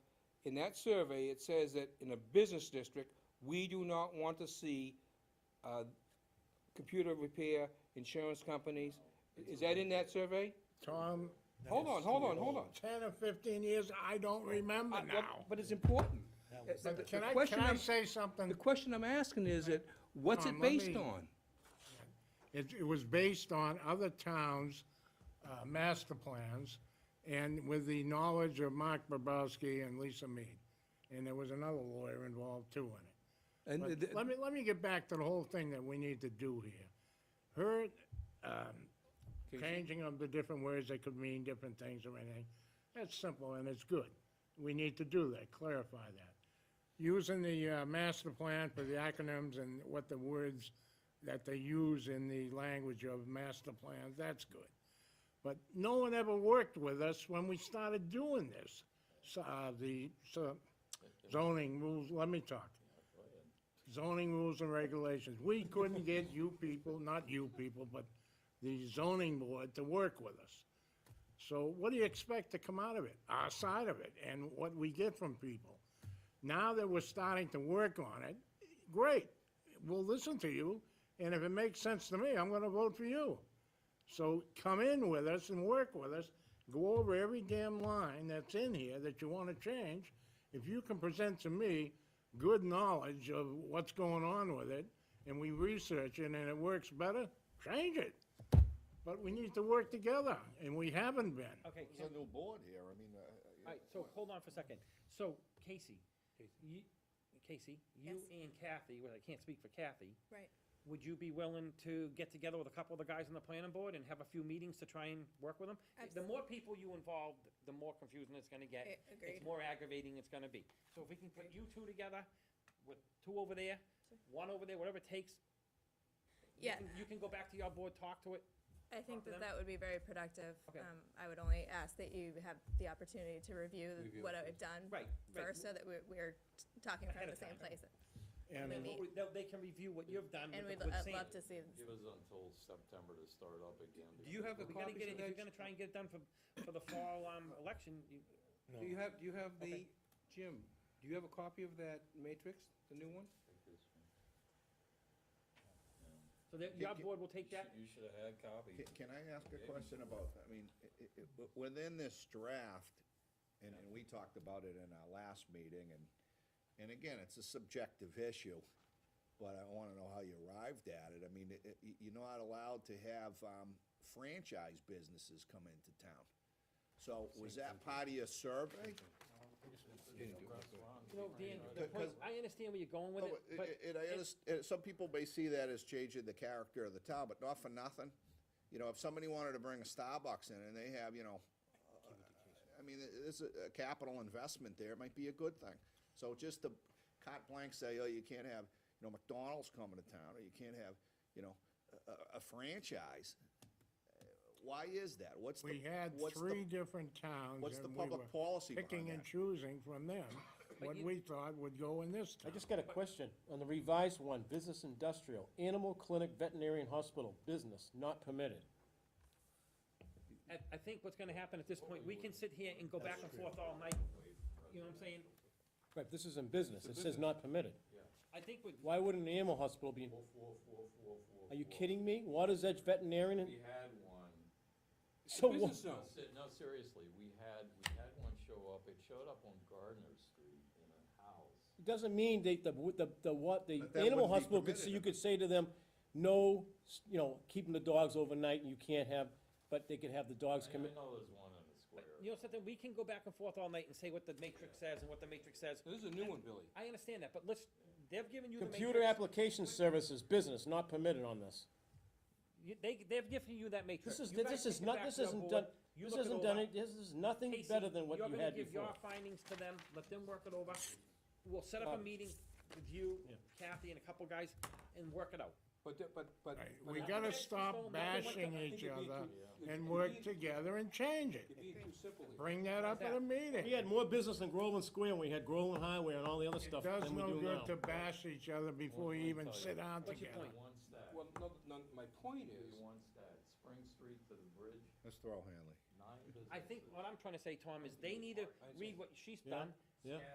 in that survey, it says that in a business district, we do not want to see, uh, computer repair, insurance companies. Is that in that survey? Tom, Hold on, hold on, hold on. ten or fifteen years, I don't remember I- well, now. But it's important. Uh, the- the But can I, question can I I'm- say something? The question I'm asking is that, what's Tom, it let based me- on? It, it was based on other towns' uh, master plans and with the knowledge of Mark Bobrowski and Lisa Mead. And there was another lawyer involved too in it. And But the- the- Let me, let me get back to the whole thing that we need to do here. Her, um, changing of the different words that could mean different things or anything, that's simple and it's good. We need to do that, clarify that. Using the, uh, master plan for the acronyms and what the words that they use in the language of master plans, that's good. But no one ever worked with us when we started doing this, so, uh, the, so zoning rules, let me talk zoning rules and regulations. We couldn't get you people, not you people, but the zoning board to work with us. So what do you expect to come out of it, our side of it, and what we get from people? Now that we're starting to work on it, great, we'll listen to you, and if it makes sense to me, I'm gonna vote for you. So come in with us and work with us, go over every damn line that's in here that you wanna change. If you can present to me good knowledge of what's going on with it, and we research it and it works better, change it. But we need to work together, and we haven't been. Okay, Ken, There's a new board here, I mean, uh, uh, all right, so hold on for a second. So Casey, you, Casey, you and Kathy, well, I can't speak for Kathy, Right. would you be willing to get together with a couple of the guys on the planning board and have a few meetings to try and work with them? The more people you involve, the more confusing it's gonna get. A- It's Eh, agreed. more aggravating it's gonna be. So if we can put you two together, with two over there, one over there, whatever it takes. you Yeah. can- You can go back to your board, talk to it, I think them? that that would be very productive. Okay. Um, I would only ask that you have the opportunity to review what I've done. Right, right. First, so that we're, we're t- talking Ahead from the of time. same place. And Maybe. Well, They, they can review what you've done And with uh, we'd the- lo- with I'd Sam. love to see, Give us until September to start up again. Do you have a We gotta copy get it, of if you're that? gonna try and get it done for, for the fall, um, election, you, Do you have, do you have the, Okay. Jim, do you have a copy of that matrix, the new one? so that, your board will take that, You should have had copies. ca- can I ask a question about, I mean, i- i- i- w- within this draft, and, and we talked about it in our last meeting, and, and again, it's a subjective issue, but I wanna know how you arrived at it, I mean, i- i- y- you're not allowed to have, um, franchise businesses come into town. So was that part of your survey? you know, Dan, the Because- point- I understand where you're going with Oh, it, it- but. it- it- I underst- uh, some people may see that as changing the character of the town, but not for nothing. You know, if somebody wanted to bring a Starbucks in and they have, you know, uh, I mean, it- it's a a capital investment there, it might be a good thing. So just to carte blanche say, oh, you can't have, you know, McDonald's coming to town, or you can't have, you know, a- a, a franchise. Uh, Why is that? What's the? we had what's the- three different towns. what's the and we public were policy behind Picking and that? choosing from them what you- we thought would go in this I town. just got a question on the revised one, business industrial, animal clinic, veterinarian hospital, business not permitted. I, I think what's gonna happen at this point, we can sit here and go back and forth all night, you know what I'm saying? Right, this is in business, it says not permitted. I think with, Why wouldn't an animal hospital be, Four, four, four, four, four. are you four. kidding me? Waters Edge Veterinarian, and- We had one. so It's a what? business zone. No, se- No, seriously, we had, we had one show up. It showed up on Gardner Street in a house. It Doesn't mean they, the, the, the what, the But that animal wouldn't be hospital could, permitted say- in you could say to them, no, s- you know, keeping the dogs overnight, you can't have, but they could have the dogs I come I in. know there's one on the but square. you know something, we can go back and forth all night and say what the matrix says and what the matrix says. This is a new one, Billy. I understand that, but let's, they've given you the matrix. Computer application services, business not permitted on this. You- They, they've given you that matrix. This is, You guys this take is it not, back this to your isn't board. done, You this look it isn't over. done, this is nothing Casey, better than what you had You're gonna give your before. findings to them, let them work it over. We'll set up a Bob. meeting with you, Uh, Yeah. Kathy, and a couple guys, and work it out. But, the- but, but. Right, but We I- gotta it's going stop back and forth. bashing I think each it'd be other too- and it'd be- work together and change it. You're being too simple here. Bring that up at a meeting. We had more business in Groveland Square, we had Groveland Highway and all the other It stuff does than we no do now. good to bash each other before you even sit down What's your together. point? One stack. Well, no, no, my point is, One stack. Spring Street to the bridge, Let's throw Hanley. nine businesses. I think what I'm trying to say, Tom, is they need to read what she's Yeah, done, yeah.